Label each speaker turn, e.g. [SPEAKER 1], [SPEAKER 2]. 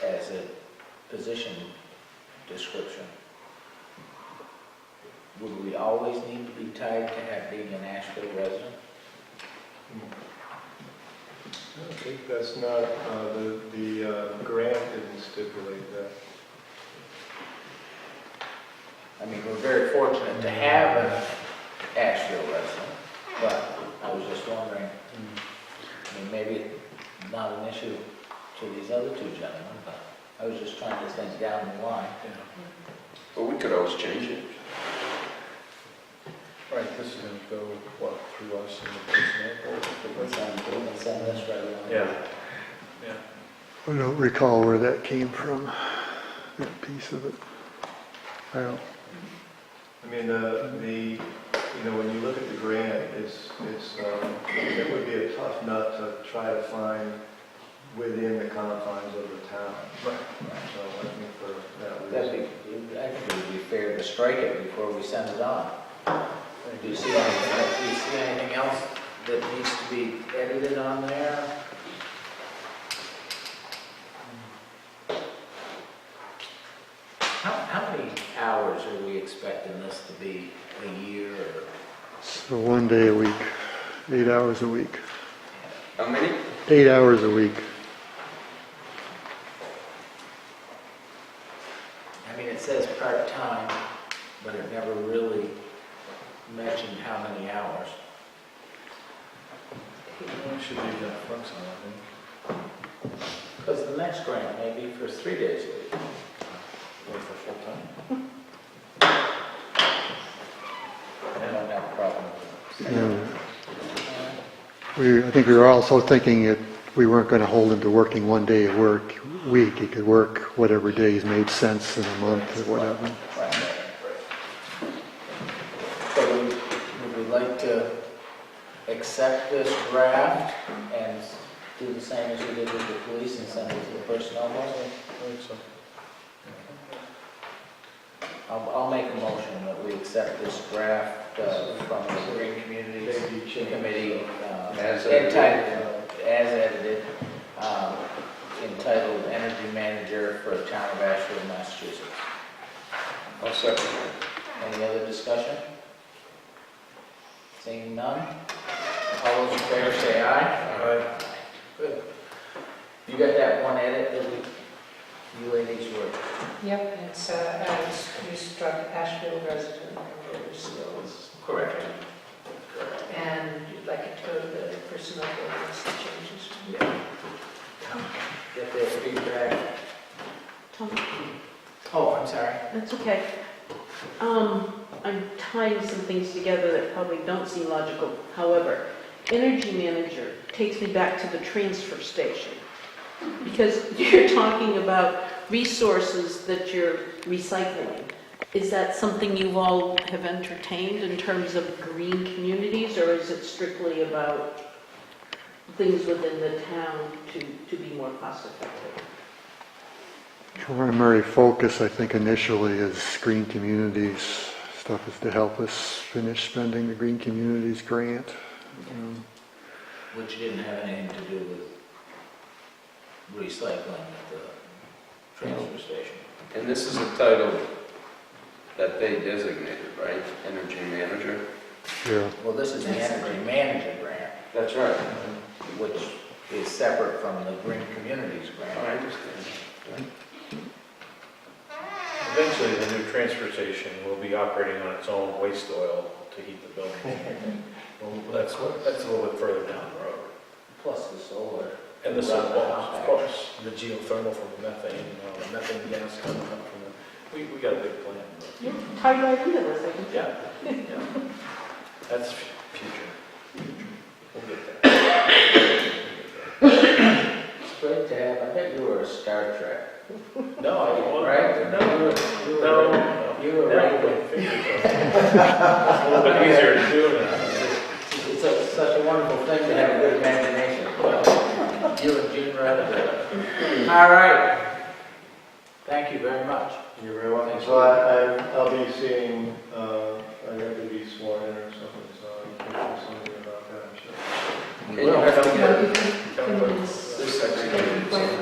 [SPEAKER 1] the position description, would we always need to be tied to have being an Asheville resident?
[SPEAKER 2] I think that's not, uh, the, the uh, grant didn't stipulate that.
[SPEAKER 1] I mean, we're very fortunate to have an Asheville resident, but I was just wondering, I mean, maybe not an issue to these other two gentlemen, but I was just trying to think down the line.
[SPEAKER 3] Well, we could always change it.
[SPEAKER 2] Right, this is gonna go, what, through us and the personnel
[SPEAKER 1] Let's send, let's send this right along.
[SPEAKER 2] Yeah.
[SPEAKER 4] I don't recall where that came from, that piece of it. I don't,
[SPEAKER 2] I mean, the, the, you know, when you look at the grant, it's, it's, um, it would be a tough nut to try to find within the confines of the town. Right. So I think for that reason.
[SPEAKER 1] That'd be, I think it would be fair to strike it before we send it on. Do you see anything, do you see anything else that needs to be edited on there? How, how many hours are we expecting this to be a year or?
[SPEAKER 4] so one day a week, eight hours a week,
[SPEAKER 3] How many?
[SPEAKER 4] eight hours a week.
[SPEAKER 1] I mean, it says part-time, but it never really mentioned how many hours.
[SPEAKER 2] Should be that flexible, I think.
[SPEAKER 1] Because the next grant may be for three days a week.
[SPEAKER 2] Or for full time.
[SPEAKER 1] I don't have a problem with that.
[SPEAKER 4] And We, I think we were also thinking that we weren't going to hold him to working one day a work, week. He could work whatever days made sense in a month or whatever.
[SPEAKER 1] Right. So would- would we like to accept this draft and do the same as we did with the police and send it to the personnel board? I'll, I'll make a motion that we accept this draft uh, from the Green Communities Committee uh,
[SPEAKER 3] As edited.
[SPEAKER 1] entitled, as edited, um, entitled Energy Manager for Town of Asheville, Massachusetts.
[SPEAKER 3] I'll second that.
[SPEAKER 1] Any other discussion? Seeing none? All those in favor say aye.
[SPEAKER 2] Alright,
[SPEAKER 1] Good. You got that one edit that we, you ladies were,
[SPEAKER 5] Yep, and it's, uh, uh, it's- we struck Asheville resident member skills.
[SPEAKER 1] Correct.
[SPEAKER 5] And you'd like it to go to the personnel board once the changes.
[SPEAKER 1] get their feedback.
[SPEAKER 6] Tom,
[SPEAKER 1] Oh, I'm sorry.
[SPEAKER 6] that's okay. Um, I'm tying some things together that probably don't seem logical. However, energy manager takes me back to the transfer station. Because you're talking about resources that you're recycling. Is that something you all have entertained in terms of green communities? Or is it strictly about things within the town to, to be more cost effective?
[SPEAKER 4] Primary focus, I think initially, is green communities. Stuff is to help us finish spending the green communities grant. Um,
[SPEAKER 1] Which didn't have anything to do with recycling at the transfer station.
[SPEAKER 3] And this is a title that they designated, right? Energy manager?
[SPEAKER 4] Yeah,
[SPEAKER 1] Well, this is the energy manager grant,
[SPEAKER 3] That's right.
[SPEAKER 1] which is separate from the Green Communities
[SPEAKER 3] I
[SPEAKER 1] grant.
[SPEAKER 3] understand.
[SPEAKER 7] Eventually, the new transfer station will be operating on its own waste oil to heat the building. Well, That's, what- that's a little bit further down the road.
[SPEAKER 1] Plus the solar.
[SPEAKER 7] And this will, of course, the geothermal from the methane, you know, the methane gas coming up from the, we, we got a big plan. but-
[SPEAKER 6] Yeah, tied right into this, I can
[SPEAKER 7] Yeah, yeah. That's future. We'll get there.
[SPEAKER 1] It's great to have, I bet you were a Star Trek,
[SPEAKER 7] No, I don't want.
[SPEAKER 1] right?
[SPEAKER 7] No,
[SPEAKER 1] You were-
[SPEAKER 7] no,
[SPEAKER 1] You
[SPEAKER 7] no.
[SPEAKER 1] were right,
[SPEAKER 7] No,
[SPEAKER 1] with-
[SPEAKER 7] fingers up. It's a little bit easier to do now.
[SPEAKER 1] it's a- such a wonderful thing to have a good imagination. You and Gene Roddenberry. All right. Thank you very much.
[SPEAKER 2] You're very welcome. So I, I- I'll be seeing, uh, I have to be sworn in or something, so I'll be thinking something about that, I'm sure.
[SPEAKER 3] And you have to
[SPEAKER 5] Well,
[SPEAKER 3] get
[SPEAKER 5] you can-
[SPEAKER 7] Kind of a-
[SPEAKER 5] can-
[SPEAKER 3] this secretary.